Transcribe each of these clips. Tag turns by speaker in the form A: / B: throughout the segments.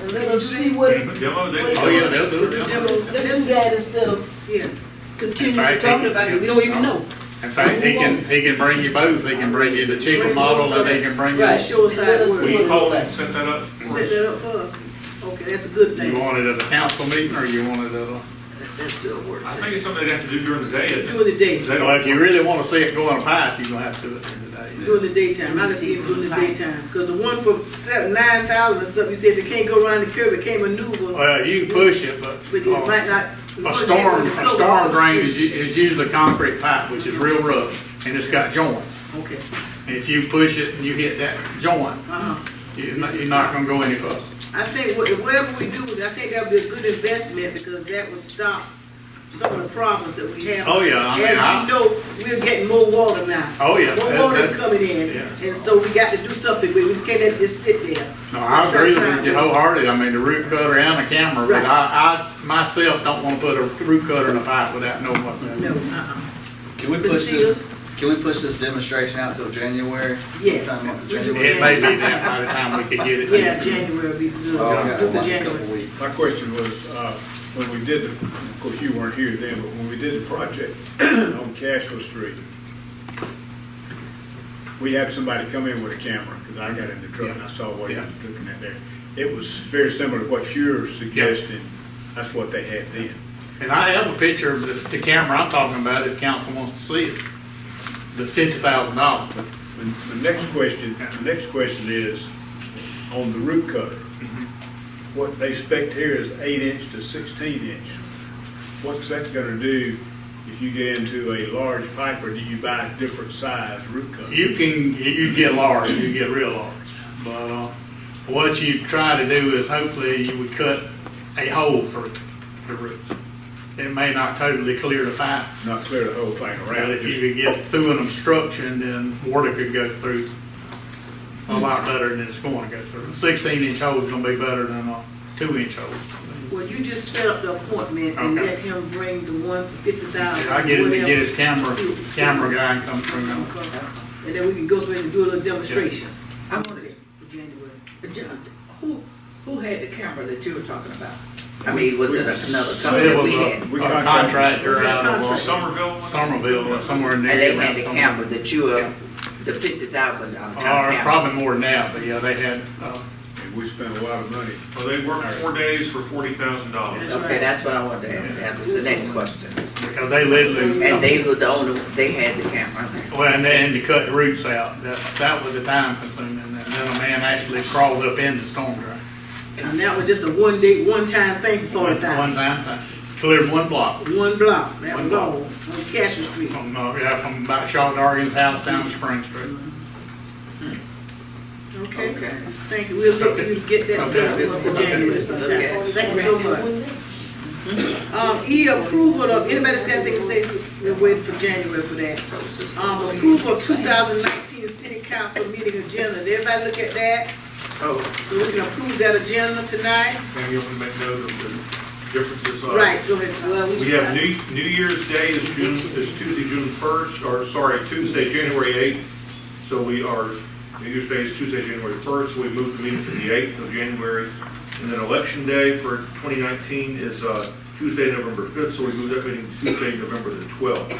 A: and let us see what.
B: Demo, they.
A: what-
C: Oh, yeah, they'll do it.
A: do- Let's do that instead of
D: Yeah,
C: Right,
A: continuing
C: they
A: talking
C: can-
A: about it, we don't even know.
C: In fact, he can, he can bring you both, he can bring you the cheaper model, and he can bring
D: Right.
C: you,
D: show us how it
A: Let
D: works.
A: see
B: Will
A: what
B: you
A: it
B: call
A: look
B: and
A: like.
B: set that up? for
D: set
B: us?
D: that up for, okay, that's a good
C: you
D: thing.
C: want it at a council meeting, or you want it at a?
D: That's still work
B: I think it's
D: session.
B: something they have to do during the day. isn't it?
D: During the day,
B: They don't-
C: Well, if you really wanna see it go on a pipe, you're gonna have to do it in the day.
D: during the daytime, I just give it during the daytime, cause the one for seven, nine thousand or something, you said they can't go around the curve, it can't maneuver,
C: Well, you can push it, but,
D: but it
C: uh,
D: might not.
C: a storm, a storm drain is, u- is usually concrete pipe, which is real rough, and it's got joints.
D: Okay,
C: If you push it and you hit that joint,
D: uh-huh.
C: you're not, you're not gonna go any further.
D: I think what- whatever we do, I think that'd be a good investment, because that would stop some of the problems that we have.
C: Oh, yeah, I mean, I-
D: As we know, we're getting more water now.
C: Oh, yeah,
D: More
C: that-
D: water's
C: that-
D: coming in,
C: yeah.
D: and so we got to do something, we we just can't let it just sit there.
C: No, I agree with you wholeheartedly, I mean, the root cutter and the camera, but
D: Right.
C: I, I myself don't wanna put a root cutter in a pipe without knowing what's in
D: No,
C: it.
D: uh-uh,
E: Can we
D: Mr.
E: push
D: Sears?
E: this, can we push this demonstration out till January?
D: Yes.
E: Sometime after
D: We do
E: January?
C: It may be that by the time we could get it.
D: yeah, January would be good,
E: Oh,
D: do
E: we got
D: for
E: a couple
D: January.
E: weeks.
F: My question was, uh, when we did, the of course, you weren't here then, but when we did the project on Cashwell Street, we had somebody come in with a camera, because I got in the truck and I saw what he was looking at there. It was very similar to what you're suggesting, that's what they had then.
C: And I have a picture of the, the camera I'm talking about, if council wants to see it, the fifty thousand dollars.
F: My- My next question, the next question is, on the root cutter,
C: Mm-hmm.
F: what they expect here is eight inch to sixteen inch. What's that gonna do if you get into a large pipe, or do you buy a different size root cutter?
C: You can, you get large, you get real large, but, uh, what you try to do is hopefully you would cut a hole through the roof. It may not totally clear the pipe,
F: Not clear the whole thing
C: Well,
F: around,
C: if you
F: just
C: could get through an obstruction, then water could go through a lot better than it's going to go through. Sixteen inch hole is gonna be better than a two inch hole.
D: Well, you just set up the appointment and
C: Okay.
D: let him bring the one for fifty thousand.
C: I get him to get his camera, camera guy and come through. now.
D: And then we can go so we can do a little demonstration.
G: I wanted
D: For January.
G: Who, who had the camera that you were talking about? I mean, was it another company
C: It
G: that
C: was
G: we had?
C: a-
F: We
C: a
F: contract-
C: contractor out of uh,
B: Somerville?
C: Somerville, or somewhere near.
G: And they
C: around
G: had the
C: Somerville.
G: camera that you, uh, the fifty thousand dollar
C: Or
G: camera?
C: probably more than that, but yeah, they had, uh,
F: and we spent a lot of money.
B: Well, they work four days for forty thousand dollars.
G: Okay, that's what I wanted to ask, that was the next question.
C: because they literally.
G: And they were the only, they had the camera, okay.
C: Well, and then to cut the roots out, that, that was the time consuming, and then a man actually crawled up in the storm drain.
D: And that was just a one day, one time thing for forty
C: One
D: thousand.
C: time, time. cleared one block
D: One block, that
C: One
D: was
C: block.
D: all, on Cashin Street.
C: from, uh, yeah, from about Shaw Dargan's house down to Spring Street.
D: Okay,
G: Okay.
D: thank you, we'll look, you get that set up
C: Okay.
D: for us for January
G: Okay.
D: sometime. Thank you so much. Um, E, approval of, anybody's got anything to say, we're waiting for January for that. Um, approval of two thousand nineteen city council meeting agenda, Did everybody look at that?
G: Oh,
D: So we can approve that agenda tonight?
C: Uh,
B: Can you open that note of the differences? are?
D: Right, go ahead. Well,
B: We have New, New Year's Day is June, is Tuesday, June first, or sorry, Tuesday, January eighth. So we are, New Year's Day is Tuesday, January first, so we moved the meeting to the eighth of January. And then Election Day for twenty nineteen is, uh, Tuesday, November fifth, so we moved that meeting to Tuesday, November the twelfth.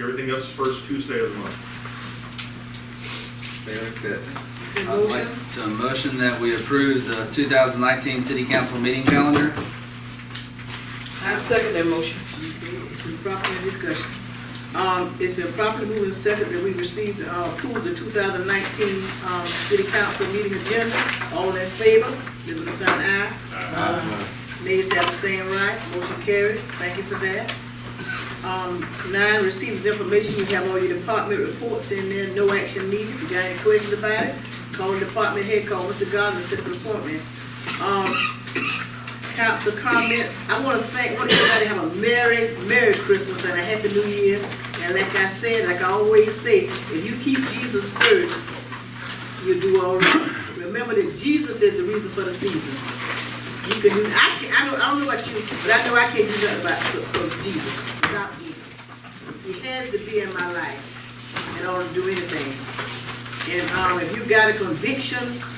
B: Everything else first Tuesday of the month.
E: Very good. I'd
D: Motion,
E: like to motion that we approve the 2019 city council meeting calendar.
A: I second that motion.
D: it's been properly discussion. Um, it's been properly moved and seconded that we received, uh, approved the two thousand nineteen, um, city council meeting agenda. All in favor, give it a sign aye. Aye. Nays have the same right, motion carried, thank you for that. Um, nine, receives information, you have all your department reports in there, no action needed, if you got any questions about it, call the department head, call Mr. Gardner, set the appointment. Um, council comments. I want to thank, want everybody to have a merry, merry Christmas and a happy new year. And like I said, like I always say, if you keep Jesus first, you'll do all right. Remember that Jesus is the reason for the season. You can do, I can, I don't, I don't know about you, but I know I can't do nothing about, for, for Jesus, without Jesus. He has to be in my life in order to do anything. And, um, if you got a conviction